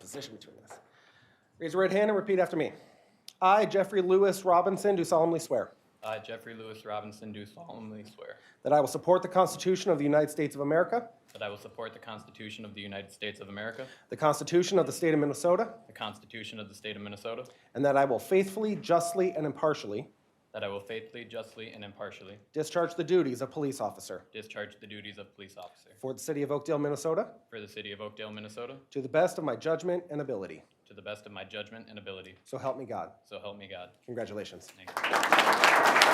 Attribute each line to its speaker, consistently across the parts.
Speaker 1: position between us. Raise your right hand and repeat after me. I, Jeffrey Lewis Robinson, do solemnly swear
Speaker 2: I, Uh, Jeffrey Lewis Robinson, do solemnly swear
Speaker 1: that I will support the Constitution of the United States of America,
Speaker 2: that I will support the Constitution of the United States of America,
Speaker 1: the Constitution of the State of Minnesota,
Speaker 2: the Constitution of the State of Minnesota,
Speaker 1: and that I will faithfully, justly, and impartially
Speaker 2: that I will faithfully, justly, and impartially
Speaker 1: discharge the duties of police officer
Speaker 2: discharge the duties of police officer
Speaker 1: for the City of Oakdale, Minnesota,
Speaker 2: for the City of Oakdale, Minnesota,
Speaker 1: to the best of my judgment and ability.
Speaker 2: to the best of my judgment and ability.
Speaker 1: So help me God.
Speaker 2: So help me God.
Speaker 1: Congratulations.
Speaker 2: Thank you.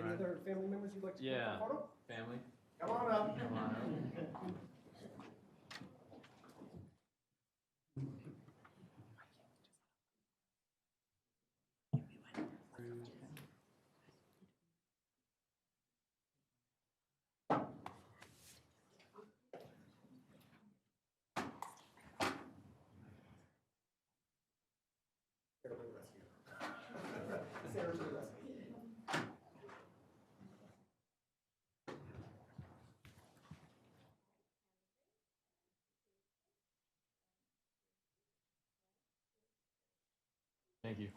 Speaker 1: Any other family members you'd like to
Speaker 2: Yeah.
Speaker 1: take a photo?
Speaker 2: Family?
Speaker 1: Come on up.
Speaker 2: Thank you.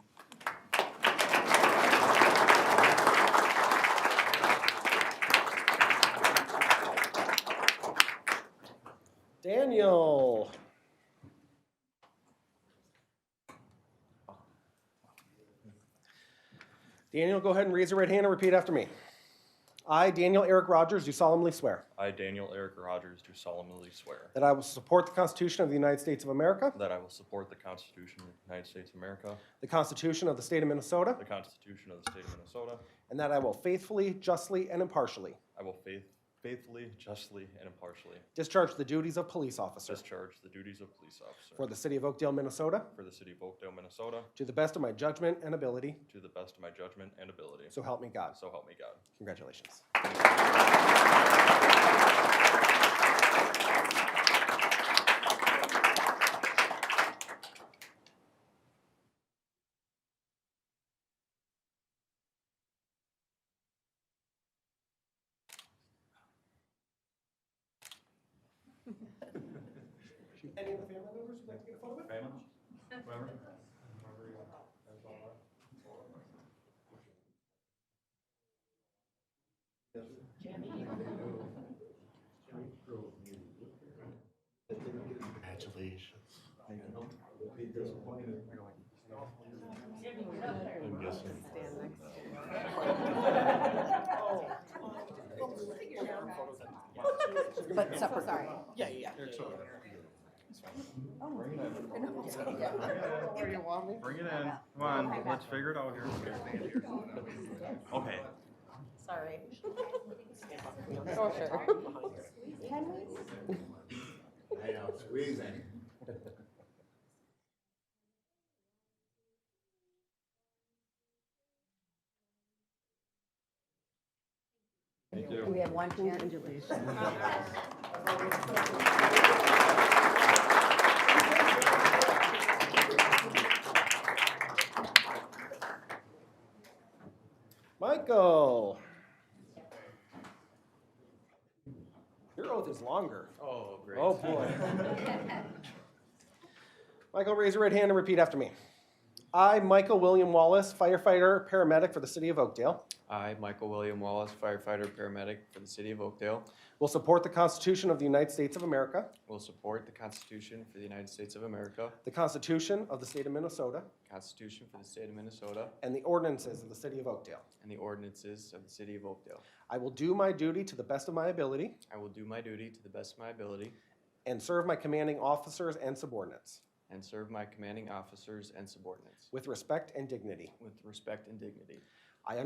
Speaker 1: Daniel. Daniel, go ahead and raise your right hand and repeat after me. I, Daniel Eric Rogers, do solemnly swear
Speaker 3: I, Daniel Eric Rogers, do solemnly swear
Speaker 1: that I will support the Constitution of the United States of America,
Speaker 3: that I will support the Constitution of the United States of America,
Speaker 1: the Constitution of the State of Minnesota,
Speaker 3: the Constitution of the State of Minnesota.
Speaker 1: and that I will faithfully, justly, and impartially
Speaker 3: I will faith, faithfully, justly, and impartially
Speaker 1: discharge the duties of police officer
Speaker 3: discharge the duties of police
Speaker 1: for
Speaker 3: officer
Speaker 1: the City of Oakdale, Minnesota,
Speaker 3: for the City of Oakdale, Minnesota,
Speaker 1: to the best of my judgment and ability.
Speaker 3: to the best of my judgment and ability.
Speaker 1: So help me God.
Speaker 3: So help me God.
Speaker 1: Congratulations. Any of the family members would like to get a photo with?
Speaker 4: But separate. Sorry. Yeah, yeah.
Speaker 5: Bring it in. Come on, let's figure it out here. Okay.
Speaker 4: Sorry. Oh, sure. We have one chance.
Speaker 1: Michael. Your oath is longer.
Speaker 2: Oh, great.
Speaker 1: Oh, boy. Michael, raise your right hand and repeat after me. I, Michael William Wallace, firefighter, paramedic for the city of Oakdale,
Speaker 2: I, Michael William Wallace, firefighter, paramedic for the City of Oakdale,
Speaker 1: will support the Constitution of the United States of America,
Speaker 2: will support the Constitution for the United States of America,
Speaker 1: the Constitution of the state of Minnesota,
Speaker 2: Constitution for the State of Minnesota,
Speaker 1: and the ordinances of the city of Oakdale.
Speaker 2: and the ordinances of the City of Oakdale.
Speaker 1: I will do my duty to the best of my ability
Speaker 2: I will do my duty to the best of my ability
Speaker 1: and serve my commanding officers and subordinates
Speaker 2: and serve my commanding officers and subordinates
Speaker 1: with respect and dignity.
Speaker 2: with respect and dignity.